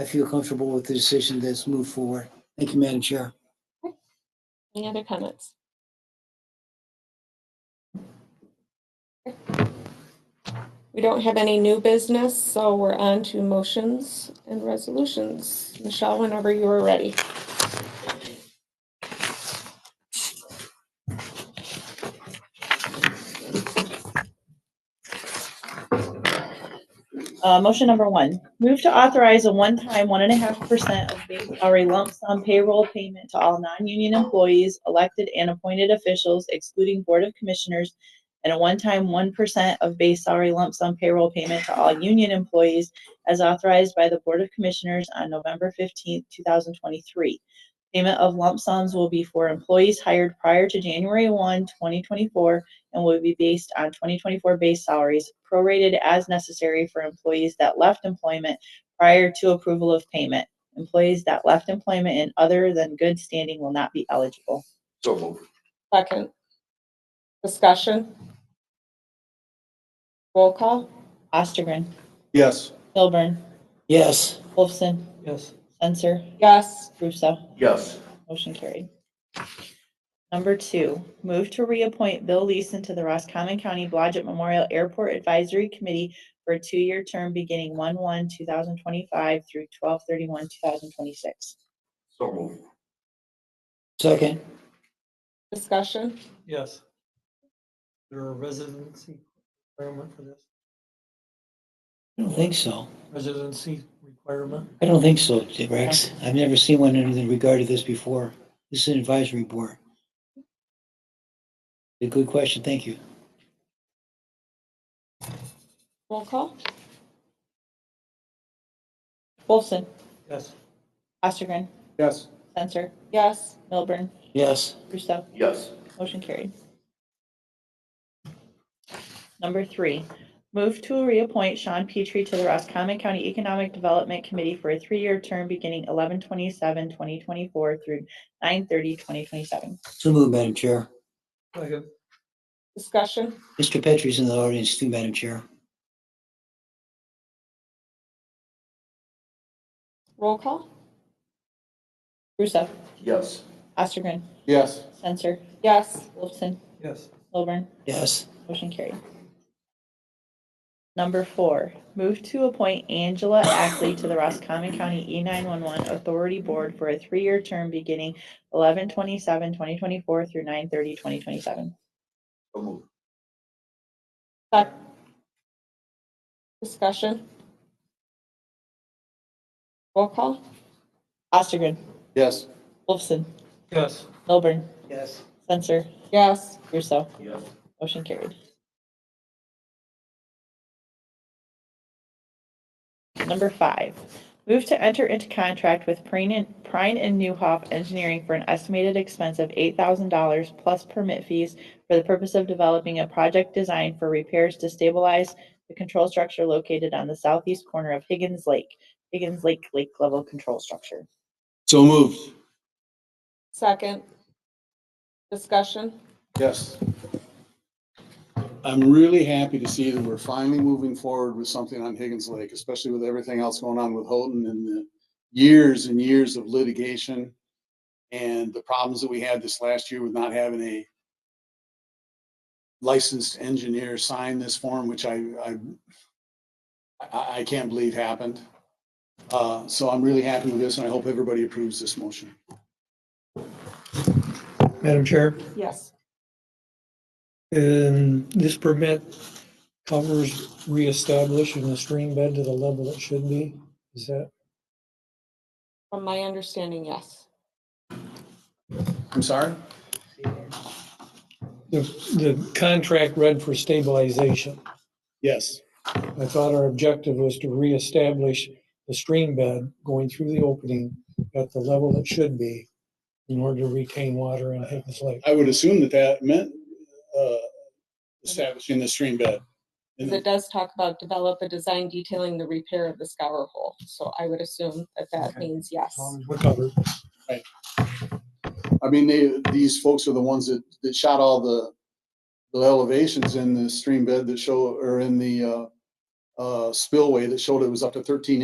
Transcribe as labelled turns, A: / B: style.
A: I feel comfortable with the decision that's moved forward. Thank you, Madam Chair.
B: Any other comments? We don't have any new business, so we're on to motions and resolutions. Michelle, whenever you are ready.
C: Uh, motion number one, move to authorize a one-time one and a half percent of base salary lump sum payroll payment to all non-union employees, elected and appointed officials excluding Board of Commissioners, and a one-time one percent of base salary lump sum payroll payment to all union employees as authorized by the Board of Commissioners on November fifteenth, two thousand twenty-three. Payment of lump sums will be for employees hired prior to January 1, 2024 and will be based on 2024 base salaries, prorated as necessary for employees that left employment prior to approval of payment. Employees that left employment in other than good standing will not be eligible.
D: So moved.
B: Second. Discussion. Roll call.
C: Ostergren,
D: Yes.
C: Milburn,
A: Yes,
C: Wolfson,
D: Yes.
C: Censor,
B: Yes.
C: Russo.
D: Yes.
C: Motion carried. Number two, move to reappoint Bill Leeson to the Roscommon County Blodgett Memorial Airport Advisory Committee for a two-year term beginning 1/1/2025 through 12/31/2026.
D: So moved.
A: second,
B: Discussion.
E: Yes. There are residency requirement for this,
A: I don't think so.
E: residency requirement.
A: I don't think so, Rex. I've never seen one in the regard of this before. This is an advisory board. A good question, thank you.
B: Roll call.
C: Wolfson,
E: Yes,
C: Ostergren,
D: Yes.
C: Censor,
B: Yes.
C: Milburn,
A: Yes,
C: Russo.
D: Yes.
C: Motion carried. Number three, move to reappoint Sean Petrie to the Roscommon County Economic Development Committee for a three-year term beginning 11/27/2024 through 9/30/2027.
A: so moved, Madam Chair.
E: second,
B: Discussion.
A: Mr. Petrie's in the audience too, Madam Chair.
B: Roll call.
C: Russo,
D: Yes.
C: Ostergren,
D: Yes.
C: Censor,
B: Yes.
C: Wolfson,
E: yes,
C: Milburn,
A: Yes,
C: Motion carried. Number four, move to appoint Angela Ackley to the Roscommon County E nine one one Authority Board for a three-year term beginning 11/27/2024 through 9/30/2027.
D: So moved.
B: Sec- Discussion. Roll call.
C: Ostergren,
D: Yes.
C: Wolfson,
E: yes.
C: Milburn,
E: Yes.
C: Censor,
B: Yes.
C: Russo.
D: Yes.
C: Motion carried. Number five, move to enter into contract with Prine and Prine and Newhoff Engineering for an estimated expense of eight thousand dollars plus permit fees for the purpose of developing a project design for repairs to stabilize the control structure located on the southeast corner of Higgins Lake, Higgins Lake Lake Level Control Structure.
D: So moved.
B: Second. Discussion.
F: Yes. I'm really happy to see that we're finally moving forward with something on Higgins Lake, especially with everything else going on with Houghton and the years and years of litigation and the problems that we had this last year with not having a licensed engineer sign this form, which I, I, I, I can't believe happened. Uh, so I'm really happy with this and I hope everybody approves this motion.
E: Madam Chair,
B: Yes.
E: and this permit covers reestablishing the stream bed to the level it should be? Is that,
B: From my understanding, yes.
F: I'm sorry?
E: the, the contract read for stabilization?
F: Yes.
E: I thought our objective was to reestablish the stream bed going through the opening at the level it should be in order to retain water in Higgins Lake.
F: I would assume that that meant uh, establishing the stream bed.
B: Because it does talk about develop a design detailing the repair of the scour hole. So I would assume that that
E: Okay.
B: means yes.
E: As long as We're covered.
F: I mean, they, these folks are the ones that, that shot all the, the elevations in the stream bed that show, or in the uh, uh, spillway that showed it was up to 13